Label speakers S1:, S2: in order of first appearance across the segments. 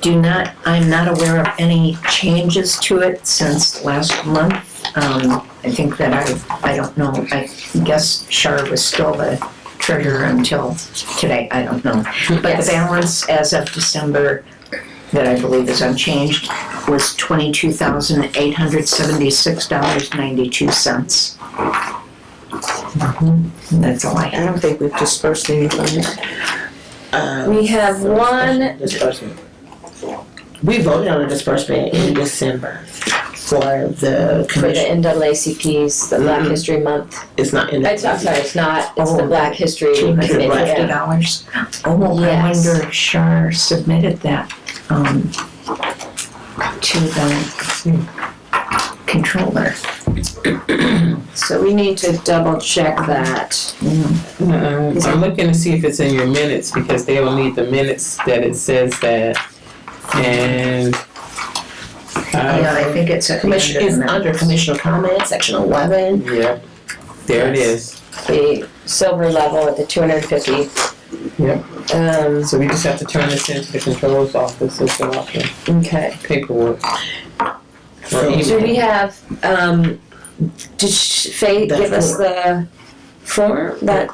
S1: do not, I'm not aware of any changes to it since last month. Um, I think that I, I don't know, I guess Shar was still the treasurer until today, I don't know. But the
S2: Yes.
S1: balance as of December, that I believe is unchanged, was twenty-two thousand eight hundred seventy-six dollars ninety-two cents. That's all I have.
S3: I don't think we've dispersed any funds. Uh,
S2: We have one,
S3: Disbursement. We voted on a disbursement in December for the
S2: for the
S3: commission.
S2: NAACP's, the Black
S3: Mhm.
S2: History Month.
S3: It's not in
S2: It's, I'm
S3: the,
S2: sorry, it's not, it's the
S1: Mm-hmm. Oh.
S2: Black History
S1: Two hundred
S2: Committee.
S1: and
S3: Right.
S1: fifty
S2: yeah.
S1: dollars? Oh, I
S2: Yes.
S1: wonder if Shar submitted that, um, to the controller.
S2: So we need to double check that.
S4: Uh-uh. I'm looking to see if it's in your minutes because they will need the minutes that it says that. And.
S1: Yeah, I
S4: uh,
S1: think it's at the end
S3: commission,
S1: of
S3: it's
S1: the
S3: under
S1: minutes.
S3: commissioner comment, section eleven.
S4: Yep, there it is.
S2: The silver level at the two hundred and fifty.
S4: Yep.
S2: Um,
S4: So we just have to turn this into the controller's office and fill out the
S2: okay.
S4: paperwork. Or
S2: Do we
S4: email.
S2: have, um, did sh- Faye
S3: The
S2: give us the form that,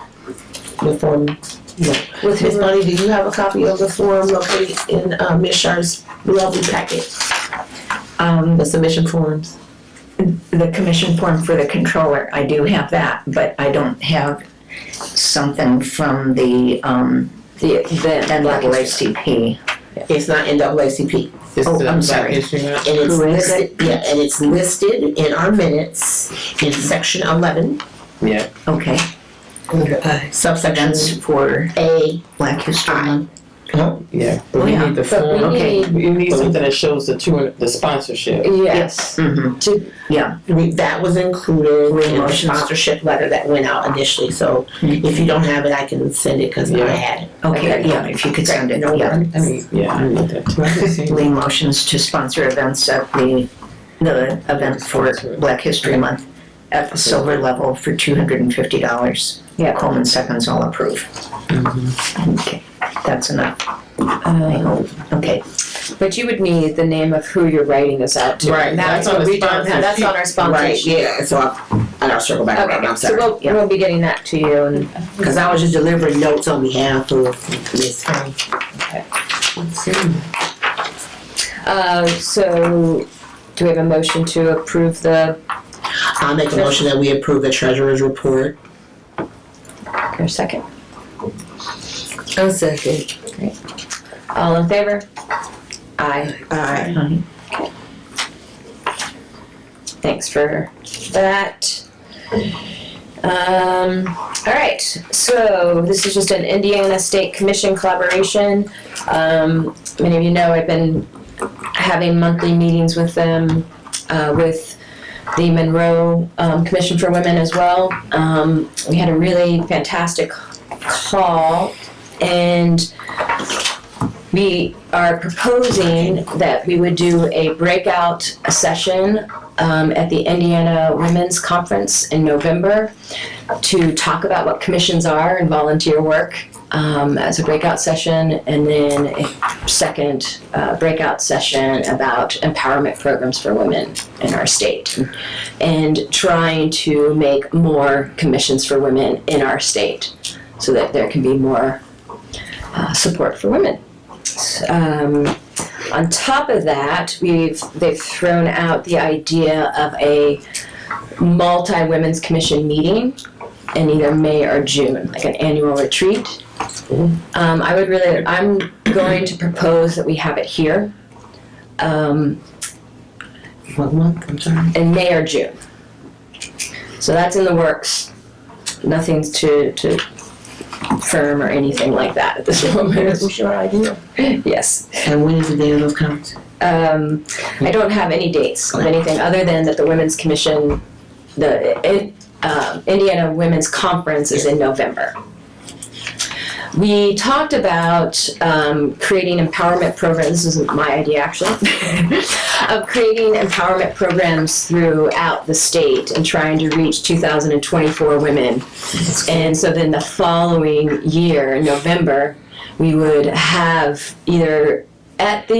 S3: The form.
S2: with
S3: Ms.
S2: his,
S3: Bonnie, do you have a copy of the form located in, uh, Ms. Shar's lovely packet?
S1: Um,
S3: The submission forms?
S1: the commission form for the controller, I do have that, but I don't have something from the, um,
S2: the, the Black History?
S1: NAACP.
S3: It's not NAACP.
S4: It's
S1: oh,
S4: the
S1: I'm
S4: Black
S1: sorry.
S4: History Month.
S3: And it's
S1: Who is
S3: listed, yeah, and it's listed in our minutes in section eleven,
S4: Yeah,
S1: Okay,
S2: uh,
S3: subsection
S1: that's for
S3: A.
S1: Black History Month.
S4: yeah,
S1: Oh,
S4: but we
S1: yeah.
S4: need the
S2: But we
S4: form.
S1: Okay.
S2: need,
S4: We need something that shows the two, the sponsorship.
S2: yes.
S1: Mm-hmm,
S2: To-
S1: yeah,
S3: We, that was included in the
S1: Promotions.
S3: sponsorship letter that went out initially, so if you don't have it, I can send it, cause I
S4: Yeah.
S3: had it.
S1: okay, yeah, if you could send it,
S3: No
S1: yeah.
S3: worries.
S4: I mean, yeah, I need that too. I can see.
S1: Lee motions to sponsor events at the, the event for Black History Month at the silver level for two hundred and fifty dollars. Yeah. Coleman seconds, all approve. Okay, that's enough, I
S2: Um,
S1: hope, okay.
S2: But you would need the name of who you're writing this out to.
S4: Right, that's on
S2: But
S4: the
S2: we don't have- That's on our
S3: Right,
S2: sponsorship.
S3: yeah, so I, and I'll circle back around,
S2: Okay,
S3: I'm
S2: so
S3: sorry.
S2: we'll, we'll be getting that to you and,
S3: Cause I was just delivering notes on behalf of Ms. Connie.
S2: uh, so do we have a motion to approve the,
S3: I'll make a motion that we approve the treasurer's report.
S2: or second?
S3: A second.
S2: All in favor? Aye.
S3: Alright,
S2: Thanks for that. Um, all right, so this is just an Indiana State Commission collaboration. Um, many of you know I've been having monthly meetings with them, uh, with the Monroe um, Commission for Women as well. Um, we had a really fantastic call, and we are proposing that we would do a breakout session um, at the Indiana Women's Conference in November to talk about what commissions are and volunteer work um, as a breakout session, and then a second uh, breakout session about empowerment programs for women in our state and trying to make more commissions for women in our state so that there can be more uh, support for women. Um, on top of that, we've they've thrown out the idea of a multi women's commission meeting in either May or June, like an annual retreat. Um, I would really, I'm going to propose that we have it here um,
S3: what month, I'm sorry?
S2: in May or June. So that's in the works. Nothing's to to firm or anything like that at this moment.
S3: What's your idea?
S2: yes.
S3: And when is the day of those comments?
S2: um, I don't have any dates of anything other than that the Women's Commission, the in, um Indiana Women's Conference is in November. We talked about um, creating empowerment programs. This isn't my idea, actually, of creating empowerment programs throughout the state and trying to reach 2,024 women. And so then the following year, in November, we would have either at the